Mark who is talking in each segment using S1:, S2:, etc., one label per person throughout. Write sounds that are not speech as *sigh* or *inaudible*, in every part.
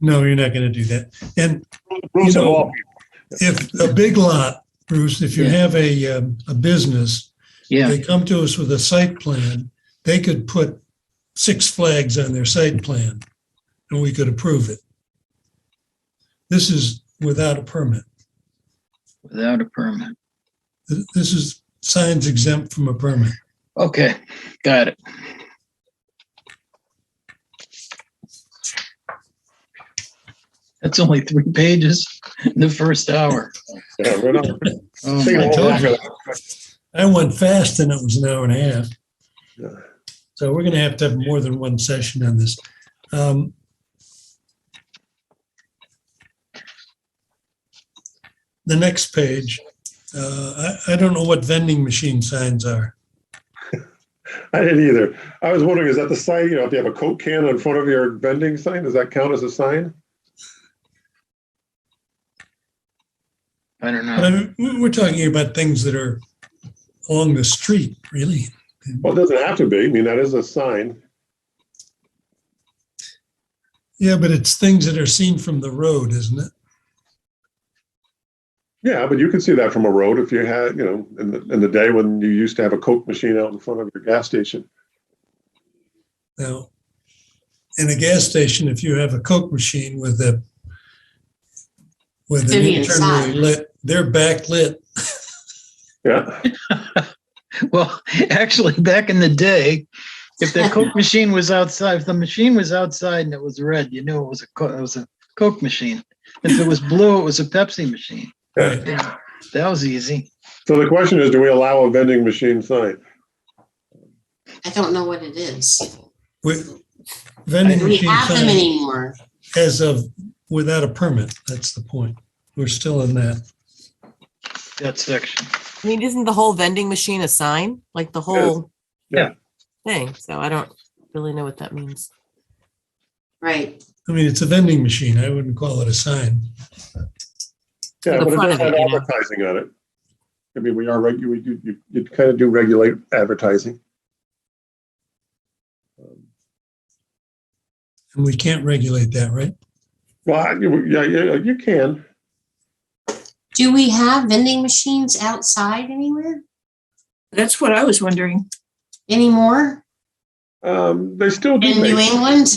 S1: No, you're not going to do that. And You
S2: Bruce and
S1: know-
S2: all people.
S1: if a big lot, Bruce, if you
S3: Yeah.
S1: have a, um, a business,
S3: Yeah,
S1: they come to us with a site plan, they could put six flags on their site plan and we could approve it. This is without a permit.
S3: without a permit.
S1: Th- This is signs exempt from a permit.
S3: Okay, got it. That's only three pages in the first hour.
S2: Yeah, we're not-
S3: Oh,
S2: Take
S3: my
S2: a
S1: told
S3: God.
S2: walk for
S1: you.
S2: that.
S1: I went fast and it was an hour and a half.
S2: Yeah.
S1: So we're going to have to have more than one session on this. Um, The next page, uh, I, I don't know what vending machine signs are.
S2: I didn't either. I was wondering, is that the sign, you know, if you have a Coke can in front of your vending sign, does that count as a sign?
S3: I don't
S1: But
S3: know.
S1: I mean, we- we're talking about things that are along the street, really.
S2: Well, it doesn't have to be. I mean, that is a sign.
S1: Yeah, but it's things that are seen from the road, isn't it?
S2: Yeah, but you could see that from a road if you had, you know, in the, in the day when you used to have a Coke machine out in front of your gas station.
S1: Now, in a gas station, if you have a Coke machine with a with an
S4: Vivian
S1: internally
S4: sign.
S1: lit, they're backlit.
S2: Yeah.
S3: Well, *laughs* actually, back in the day, if the Coke machine was outside, if the machine was outside and it was red, you knew it was a Coke, it was a Coke machine. If it was blue, it was a Pepsi machine.
S1: Right.
S3: That was easy.
S2: So the question is, do we allow a vending machine sign?
S4: I don't know what it is.
S1: With vending
S4: Do we
S1: machine
S4: have them
S1: sign
S4: anymore?
S1: as of without a permit. That's the point. We're still in that.
S3: That section. *laughs*
S5: I mean, isn't the whole vending machine a sign? Like the whole
S2: Yeah.
S5: thing. So I don't really know what that means.
S4: Right.
S1: I mean, it's a vending machine. I wouldn't call it a sign.
S2: Yeah,
S5: The
S2: but it
S5: front
S2: does
S5: of
S2: have
S5: it, you know.
S2: advertising on it. I mean, we are, reg- you, you, you- you kind of do regulate advertising.
S1: And we can't regulate that, right?
S2: Well, you, yeah, yeah, you can.
S4: Do we have vending machines outside anywhere
S6: That's what I was wondering.
S4: anymore
S2: Um, they still do
S4: in New
S2: make,
S4: England?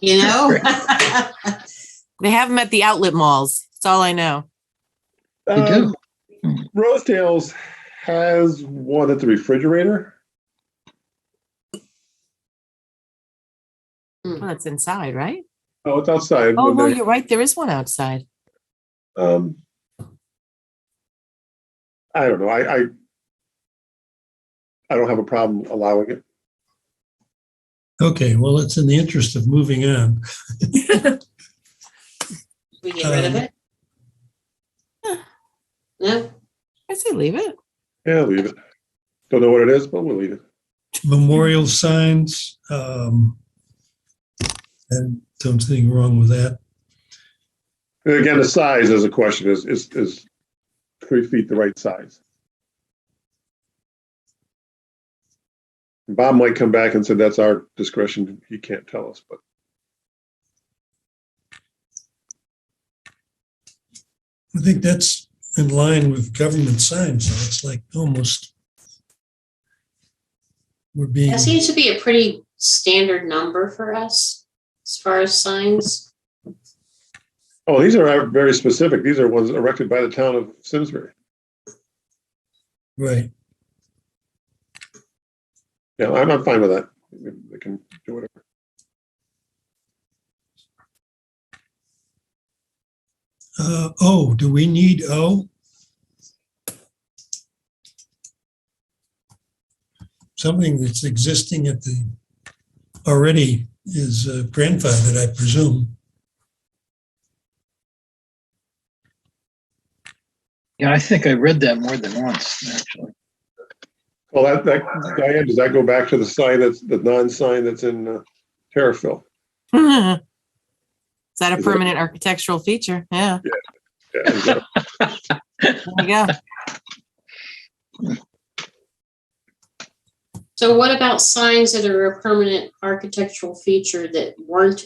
S4: You know?
S5: They have them at the outlet malls. That's all I know.
S3: We
S2: um,
S3: do.
S2: Rosedale's has one at the refrigerator.
S5: Well, that's inside, right?
S2: Oh, it's outside.
S5: Oh,
S2: when
S5: no,
S2: they-
S5: you're right. There is one outside.
S2: um, I don't know. I, I, I don't have a problem allowing it.
S1: Okay, well, it's in the interest of moving on.
S4: *laughs* We get rid of it? No?
S5: I say leave it. *laughs*
S2: Yeah, leave it. Don't know what it is, but we'll leave it.
S1: Memorial signs, um, and don't see anything wrong with that.
S2: And again, the size is a question. Is is is three feet the right size? Bob might come back and say that's our discretion. He can't tell us, but
S1: I think that's in line with government signs, so it's like almost we're being,
S4: That seems to be a pretty standard number for us as far as signs.
S2: oh, these are very specific. These are ones erected by the town of Simsbury.
S1: right,
S2: Yeah, I'm, I'm fine with that. They can do whatever.
S1: uh, oh, do we need oh. O? Something that's existing at the, already is uh, grandfathered, I presume.
S3: Yeah, I think I read that more than once, actually.
S2: Well, that, that, Diane, does that go back to the sign that's, the non-sign that's in uh, Terriffill?
S5: is that a
S2: Is that-
S5: permanent architectural feature? Yeah.
S2: Yeah, is that-
S5: There you go.
S4: So what about signs that are a permanent architectural feature that weren't